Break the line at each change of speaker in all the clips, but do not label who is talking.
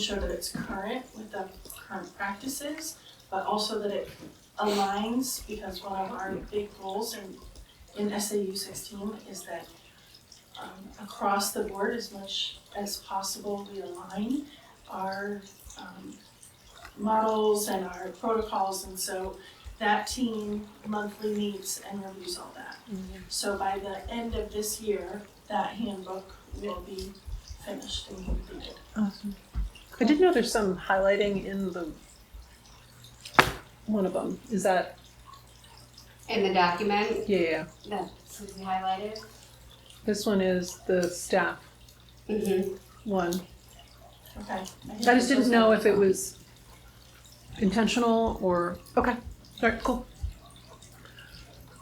sure that it's current with the current practices, but also that it aligns, because one of our big goals in, in SAU sixteen is that um, across the board, as much as possible, we align our, um, models and our protocols, and so that team monthly meets and reviews all that. So by the end of this year, that handbook will be finished and completed.
Awesome. I did know there's some highlighting in the one of them. Is that
In the document
yeah? yeah, yeah.
that Susie highlighted?
This one is the staff
Mm-hmm.
one.
Okay.
I just didn't know if it was intentional or okay. All right, cool.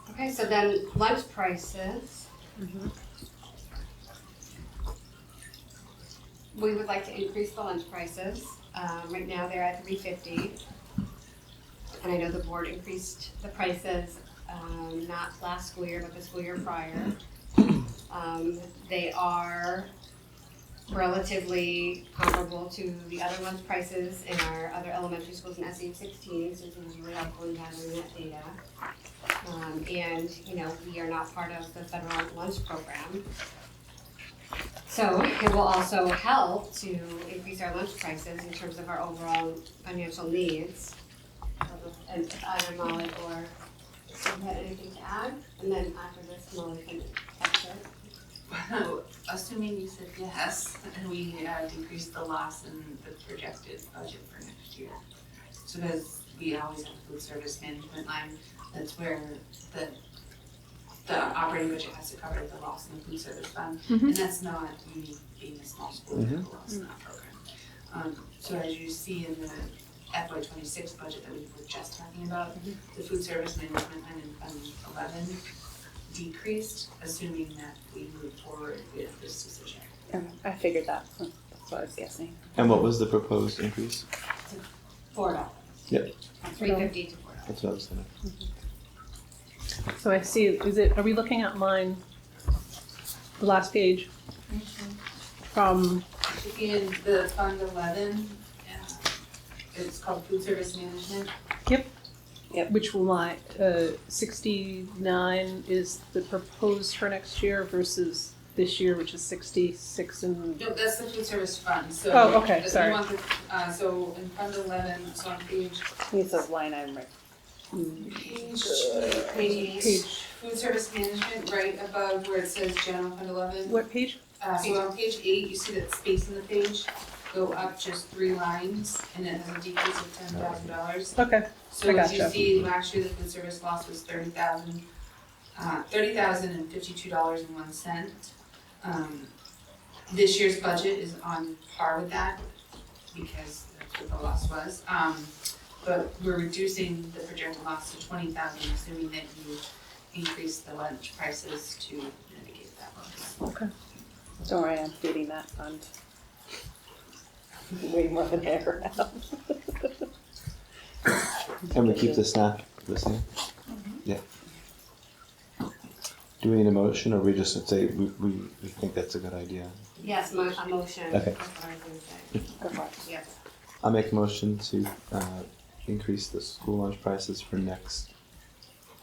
Okay, so then lunch prices.
Mhm.
We would like to increase the lunch prices. Um, right now they're at three fifty. And I know the board increased the prices, um, not last school year, but the school year prior. Um, they are relatively comparable to the other lunch prices in our other elementary schools in SU sixteen, so it's really helpful in having that data. Um, and, you know, we are not part of the federal lunch program. So it will also help to increase our lunch prices in terms of our overall financial needs. And if either Molly or Sue had anything to add, and then after this, Molly can catch it.
Wow, Assuming you said yes, and we uh, decreased the loss in the projected budget for next year. So because we always have a food service management line, that's where the, the operating budget has to cover the loss in the food service fund. And that's not unique being a small school, we have a loss in that program. Um, so as you see in the FY twenty-six budget that we were just talking about, the food service management line in fund eleven decreased, assuming that we move forward with this decision.
I figured that. That's what I was guessing.
And what was the proposed increase?
Four dollars.
Yep.
Three fifty to four dollars.
That's what I was thinking.
So I see. Is it? Are we looking at line? The last page from
Should be in the fund eleven, uh, it's called food service management.
which line? Uh, Sixty-nine is the proposed for next year versus this year, which is sixty-six and
No, that's the food service fund, so.
Oh, okay,
if you
sorry.
want the- Uh, so in fund eleven, so on page,
It's a line item. right?
page,
Page eight.
Page,
food service management, right above where it says general fund eleven.
what page?
Uh, so on page eight, you see that space in the page, go up just three lines, and it has a decrease of ten thousand dollars.
Okay,
So
I
as you
gotcha.
see, last year the food service loss was thirty thousand, uh, thirty thousand and fifty-two dollars and one cent. Um, this year's budget is on par with that because that's what the loss was. Um, but we're reducing the projected loss to twenty thousand, assuming that you increase the lunch prices to mitigate that loss.
Don't worry, I'm feeding that fund. Way more than I ever have.
And we keep the snack the same? Yeah. Do we need a motion or we just should say we, we, we think that's a good idea?
Yes, mo- a motion.
Okay.
That's what I was gonna say.
Good luck.
Yes.
I make a motion to uh, increase the school lunch prices for next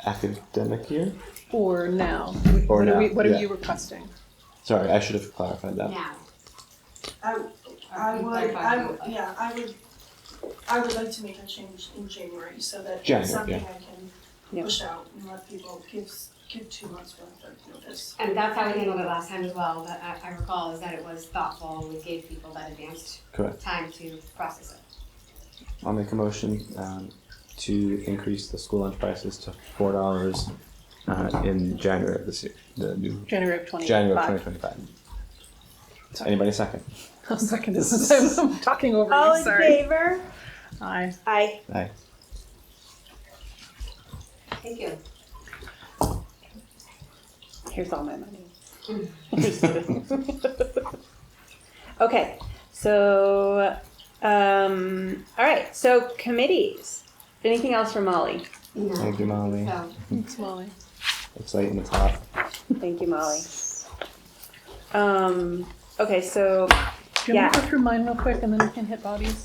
academic year.
or now?
Or
What are
now,
we- What are
yeah.
you requesting?
Sorry, I should have clarified that.
Now.
I, Um, I
Or oh
would,
clarify
I,
who-
would- yeah, I would, I would like to make a change in January so that
January,
it's something
yeah.
I can
Yeah.
push out and let people give, s- give two months worth of notice.
And that's how we handled it last time as well, but I, I recall is that it was thoughtful and we gave people that advanced
Correct.
time to process it.
I'll make a motion um, to increase the school lunch prices to four dollars uh, in January of this year. The new
January of twenty-five.
January twenty twenty five. Anybody second?
I'll second this, is- I'm talking over
All
you,
in
sorry.
favor?
Aye.
Aye.
Aye.
Thank you.
Here's all my money. Just kidding.
Okay, so, um, all right, so committees. Anything else for Molly?
No.
Thank you, Molly.
So,
Thanks, Molly.
It's late in the top.
Thank you, Molly. Um, okay, so
Do you want me to go through mine real quick and then we can hit bodies?